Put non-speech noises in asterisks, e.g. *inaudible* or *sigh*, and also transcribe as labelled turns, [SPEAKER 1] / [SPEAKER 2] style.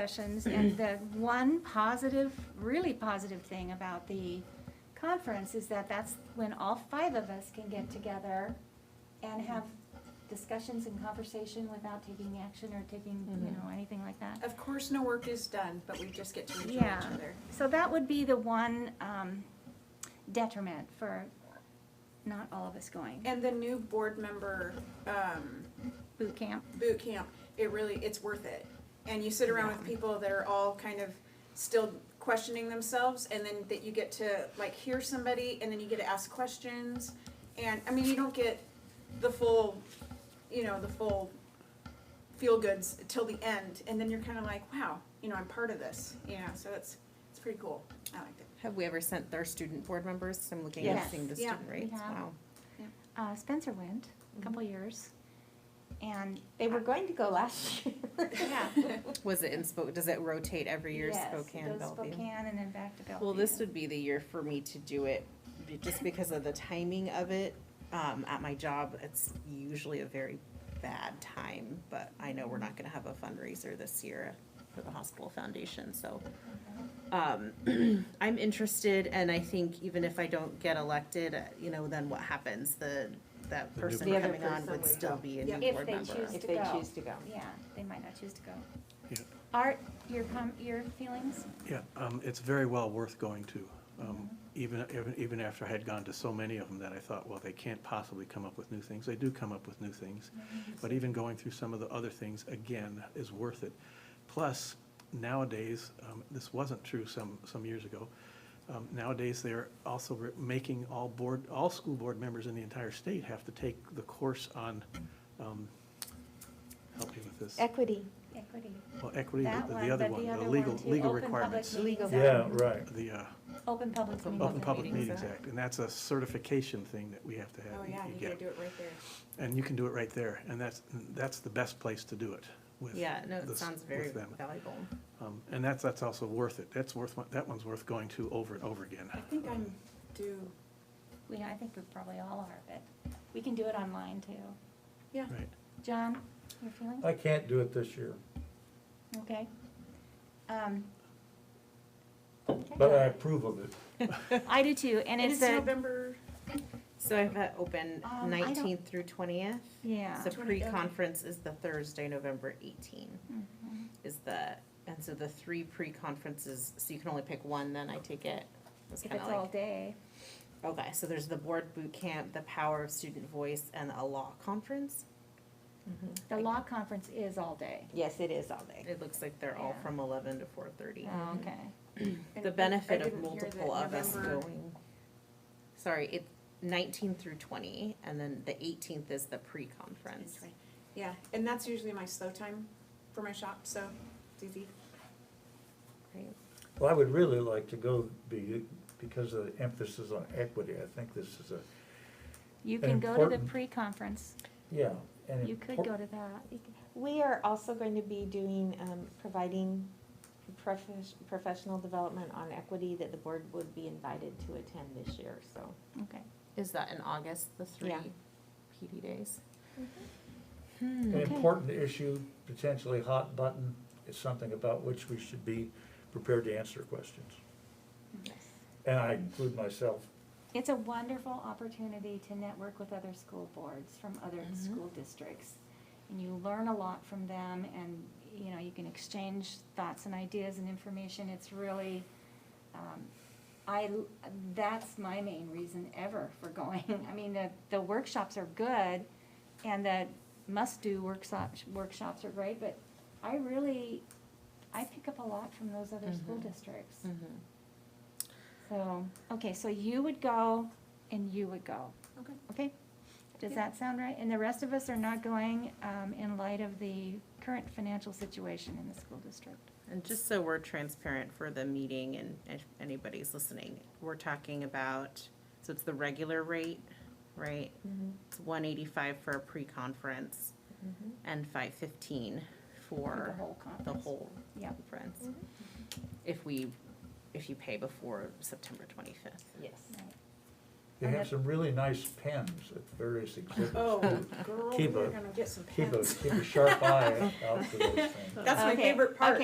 [SPEAKER 1] sessions, and the one positive, really positive thing about the conference is that that's when all five of us can get together and have discussions and conversation without taking action or taking, you
[SPEAKER 2] Mm-hmm.
[SPEAKER 1] know, anything like that.
[SPEAKER 3] Of course, no work is done, but we just get to enjoy each
[SPEAKER 1] Yeah.
[SPEAKER 3] other.
[SPEAKER 1] So that would be the one um, detriment for not all of us going.
[SPEAKER 3] And the new board member um,
[SPEAKER 1] Boot camp,
[SPEAKER 3] boot camp, it really, it's worth it. And you sit around with people that are all kind of still questioning themselves, and then that you get to like hear somebody, and then you get to ask questions. And I mean, you don't get the full, you know, the full feel goods till the end, and then you're kind of like, wow, you know, I'm part of this. You know, so it's it's pretty cool. I liked it.
[SPEAKER 2] Have we ever sent their student board members? I'm looking
[SPEAKER 1] Yes.
[SPEAKER 2] at seeing the
[SPEAKER 3] Yeah,
[SPEAKER 2] student
[SPEAKER 1] we
[SPEAKER 2] rates,
[SPEAKER 1] have.
[SPEAKER 2] wow.
[SPEAKER 1] Uh, Spencer went a couple
[SPEAKER 2] Mm-hmm.
[SPEAKER 1] years, and
[SPEAKER 2] *laughs*
[SPEAKER 1] they were going to go
[SPEAKER 4] *laughs*
[SPEAKER 1] last year.
[SPEAKER 3] Yeah.
[SPEAKER 2] Was it in Spokane, does it rotate every year,
[SPEAKER 1] Yes, it
[SPEAKER 2] Spokane,
[SPEAKER 1] goes
[SPEAKER 2] Bellevue?
[SPEAKER 1] Spokane and then back to Bellevue.
[SPEAKER 2] Well, this would be the year for me to do it, be- just because of the timing of it. Um, at my job, it's usually a very bad time, but I know we're not gonna have a fundraiser this year for the hospital foundation, so. Um, *clears throat* I'm interested, and I think even if I don't get elected, uh, you know, then what happens? The, that
[SPEAKER 5] new
[SPEAKER 2] person
[SPEAKER 4] The other
[SPEAKER 2] coming on
[SPEAKER 4] person
[SPEAKER 2] would
[SPEAKER 4] would
[SPEAKER 2] still
[SPEAKER 4] go.
[SPEAKER 2] be a
[SPEAKER 3] Yeah.
[SPEAKER 2] new
[SPEAKER 1] If
[SPEAKER 2] board
[SPEAKER 1] they
[SPEAKER 2] member.
[SPEAKER 1] choose
[SPEAKER 4] If
[SPEAKER 1] to
[SPEAKER 4] they
[SPEAKER 1] go.
[SPEAKER 4] choose to go.
[SPEAKER 1] Yeah, they might not choose to go.
[SPEAKER 5] Yeah.
[SPEAKER 1] Art, your com, your feelings?
[SPEAKER 5] Yeah, um, it's very well worth going to, um,
[SPEAKER 1] Mm-hmm.
[SPEAKER 5] even, even, even after I had gone to so many of them that I thought, well, they can't possibly come up with new things. They do come up with new things.
[SPEAKER 1] Mm-hmm,
[SPEAKER 5] But even going through some of the other things, again, is worth it. Plus, nowadays, um, this wasn't true some, some years ago. Um, nowadays, they're also re- making all board, all school board members in the entire state have to take the course on, um, help me with this.
[SPEAKER 4] Equity.
[SPEAKER 1] Equity.
[SPEAKER 5] Well, equity,
[SPEAKER 1] That
[SPEAKER 5] the- the other
[SPEAKER 1] but
[SPEAKER 5] one, the
[SPEAKER 1] other
[SPEAKER 5] legal,
[SPEAKER 1] too.
[SPEAKER 5] legal
[SPEAKER 1] Open public
[SPEAKER 5] requirements.
[SPEAKER 1] meetings
[SPEAKER 6] Yeah,
[SPEAKER 1] act.
[SPEAKER 6] right.
[SPEAKER 5] The, uh,
[SPEAKER 1] Open public meetings.
[SPEAKER 5] Open
[SPEAKER 1] act.
[SPEAKER 5] Public Meetings
[SPEAKER 2] Act.
[SPEAKER 5] Act, and that's a certification thing that we have to have.
[SPEAKER 3] Oh
[SPEAKER 5] you-
[SPEAKER 3] yeah,
[SPEAKER 5] you
[SPEAKER 3] you
[SPEAKER 5] get.
[SPEAKER 3] gotta do it right there.
[SPEAKER 5] And you can do it right there, and that's, that's the best place to do it with.
[SPEAKER 2] Yeah, no, it
[SPEAKER 5] this-
[SPEAKER 2] sounds very
[SPEAKER 5] with them.
[SPEAKER 2] valuable.
[SPEAKER 5] Um, And that's, that's also worth it, that's worth, one- that one's worth going to over and over again.
[SPEAKER 3] I think I'm due.
[SPEAKER 1] We, I think we probably all are, but we can do it online too.
[SPEAKER 3] Yeah.
[SPEAKER 5] Right,
[SPEAKER 1] John, your feelings?
[SPEAKER 6] I can't do it this year,
[SPEAKER 1] Okay. Um,
[SPEAKER 6] but I approve of it.
[SPEAKER 1] I do too, and
[SPEAKER 3] And
[SPEAKER 1] it's a,
[SPEAKER 3] it's November,
[SPEAKER 2] So I've got open
[SPEAKER 1] Um, I don't-
[SPEAKER 2] nineteenth through twentieth.
[SPEAKER 1] yeah.
[SPEAKER 2] So
[SPEAKER 3] 20, okay.
[SPEAKER 2] pre-conference is the Thursday, November eighteen
[SPEAKER 1] Mhm.
[SPEAKER 2] is the, and so the three pre-conferences, so you can only pick one, then I take it. It's
[SPEAKER 1] If
[SPEAKER 2] kind
[SPEAKER 1] it's
[SPEAKER 2] of
[SPEAKER 1] all
[SPEAKER 2] like,
[SPEAKER 1] day.
[SPEAKER 2] okay, so there's the board boot camp, the power of student voice, and a law conference.
[SPEAKER 1] The law conference is all day.
[SPEAKER 4] Mm-hmm. Yes, it is all day.
[SPEAKER 2] It looks like they're all
[SPEAKER 1] Yeah.
[SPEAKER 2] from eleven to four thirty.
[SPEAKER 4] Oh, Um,
[SPEAKER 1] Okay.
[SPEAKER 3] and I-
[SPEAKER 2] The
[SPEAKER 3] I
[SPEAKER 2] benefit of
[SPEAKER 3] didn't hear that
[SPEAKER 2] multiple of us
[SPEAKER 3] November-
[SPEAKER 2] going, sorry, it, nineteen through twenty, and then the eighteenth is the pre-conference.
[SPEAKER 3] Yeah, and that's usually my slow time for my shop, so it's easy.
[SPEAKER 2] Right.
[SPEAKER 6] Well, I would really like to go be, because of the emphasis on equity, I think this is a,
[SPEAKER 1] You can
[SPEAKER 6] And
[SPEAKER 1] go to the
[SPEAKER 6] important-
[SPEAKER 1] pre-conference.
[SPEAKER 6] yeah. an
[SPEAKER 1] You could
[SPEAKER 6] impor-
[SPEAKER 1] go to that.
[SPEAKER 4] We are also going to be doing, um, providing profes- professional development on equity that the board would be invited to attend this year, so.
[SPEAKER 1] Okay.
[SPEAKER 2] Is that in August, the three
[SPEAKER 4] Yeah.
[SPEAKER 2] PD days?
[SPEAKER 6] An
[SPEAKER 1] okay.
[SPEAKER 6] important issue, potentially hot button, is something about which we should be prepared to answer questions. And I include myself.
[SPEAKER 1] It's a wonderful opportunity to network with other school boards from other school districts. And you learn a lot from them and, you know, you can exchange thoughts and ideas and information. It's really, um, I, that's my main reason ever for *laughs* going. I mean, the, the workshops are good and the must-do workshops, workshops are great, but I really, I pick up a lot from those other school districts.
[SPEAKER 2] Mm-hmm.
[SPEAKER 1] So, okay, so you would go and you would go.
[SPEAKER 3] Okay.
[SPEAKER 1] Okay? Does that sound right? And the rest of us are not going um, in light of the current financial situation in the school district.
[SPEAKER 2] And just so we're transparent for the meeting and if anybody's listening, we're talking about, so it's the regular rate, right?
[SPEAKER 4] Mm-hmm.
[SPEAKER 2] It's one eighty-five for a pre-conference
[SPEAKER 4] Mm-hmm.
[SPEAKER 2] and five fifteen
[SPEAKER 1] For the
[SPEAKER 2] for
[SPEAKER 1] whole
[SPEAKER 2] the
[SPEAKER 1] conference.
[SPEAKER 2] whole
[SPEAKER 1] Yep.
[SPEAKER 2] conference. If we, if you pay before September twenty-fifth.
[SPEAKER 4] Yes.
[SPEAKER 1] Right.
[SPEAKER 6] They
[SPEAKER 1] And
[SPEAKER 6] have
[SPEAKER 1] it-
[SPEAKER 6] some really nice pens at
[SPEAKER 1] *laughs*
[SPEAKER 6] various exhibits. *laughs*
[SPEAKER 3] Oh,
[SPEAKER 6] too.
[SPEAKER 3] girl,
[SPEAKER 6] Keep
[SPEAKER 3] we're
[SPEAKER 6] a-
[SPEAKER 3] gonna get some
[SPEAKER 6] Keep a,
[SPEAKER 3] pens.
[SPEAKER 6] keep a sharp eye out for those things.
[SPEAKER 3] That's my
[SPEAKER 1] Okay,
[SPEAKER 3] favorite part.